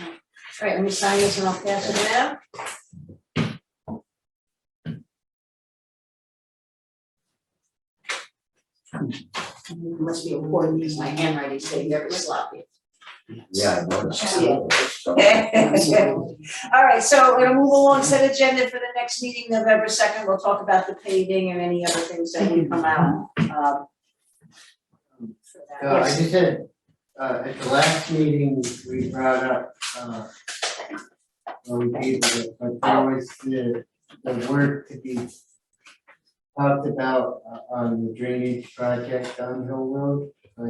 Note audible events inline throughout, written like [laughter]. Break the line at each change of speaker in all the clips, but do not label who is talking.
All right, let me sign this and I'll pass it out. Must be important because my handwriting's getting very sloppy.
Yeah, I noticed.
Yeah. All right, so we're gonna move along, set agenda for the next meeting, November second, we'll talk about the paving and any other things that would come out, um. for that.
Uh, I just had, uh, at the last meeting, we brought up, uh, well, we gave it, but there was the, the work to be talked about uh, on the drainage project on Hill Road, by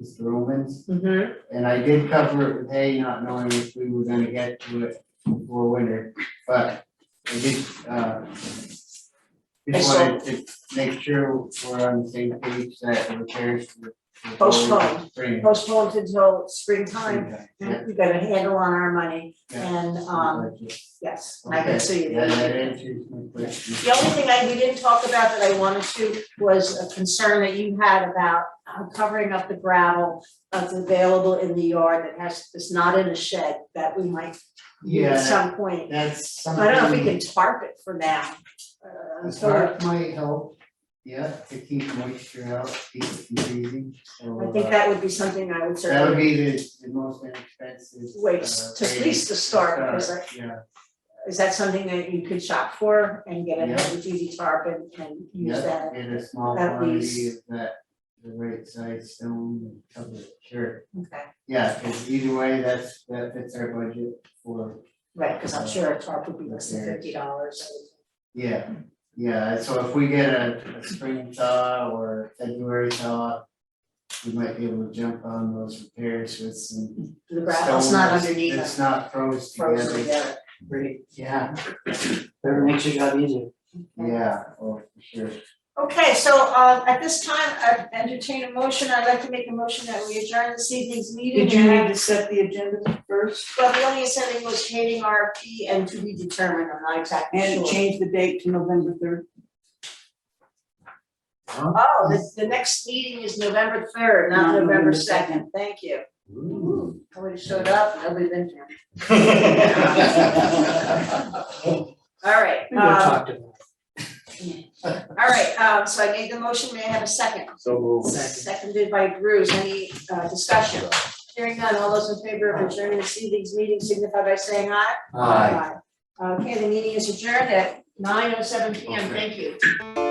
Mr. Romans.
Mhm.
And I did cover it with hay, not knowing if we were gonna get to it before winter, but I did, uh. Just wanted to make sure we're on the same page that the repairs. were- were going
Postponed.
spring.
postponed until springtime,
Yeah,
we got a handle on our money,
yeah.
and, um, yes, I can see
Okay,
you.
Yeah, that answers my question.
The only thing I, we didn't talk about that I wanted to was a concern that you had about uh, covering up the gravel that's available in the yard that has, is not in a shed, that we might need at
Yeah,
some point.
that's something.
I don't know if we can tarp it for now. uh,
The
so
tarp might help, yeah, to keep moisture out, keep it from freezing, so.
I think
uh,
that would be something I would
That would
certainly
be the, the most inexpensive.
wait,
uh,
to at
way
least to start, because I,
Yeah,
is that something that you could shop for and get a
Yeah.
easy tarp and, and use
yeah,
that?
and a small
at
quantity of
least.
that, the right size stone, and cover it, sure.
Okay,
Yeah, cause either way, that's, that fits our budget for,
right, because I'm sure a tarp would be less than fifty dollars.
yeah, yeah, so if we get a, a spring thaw or February thaw. We might be able to jump on those repairs with some
The gravel's
stone
not
that's,
underneath us.
that's not froze together.
frozen together.
Great, yeah. Better makes your job easier.
Yeah, oh, for sure.
Okay, so um at this time, I entertain a motion, I'd like to make a motion that we adjourn this evening's meeting.
Did you
and
need
have-
to set the agenda first
Well, the only setting was hating RFP and to be determined, I'm not exactly
and
sure.
change the date to November third?
Oh, the the next meeting is November third,
Not
not November
November
second, thank you. I would have showed up, nobody been here. All right, um,
to them.
[laughs] all right, um so I made the motion, may I have a second?
[laughs] So
Second.
Seconded by Bruce, any uh discussion? Hearing none, all those in favor of adjourning this evening's meeting signify by saying aye.
Aye.
Aye. Okay, the meeting is adjourned at nine oh seven P M,
Okay.
thank you.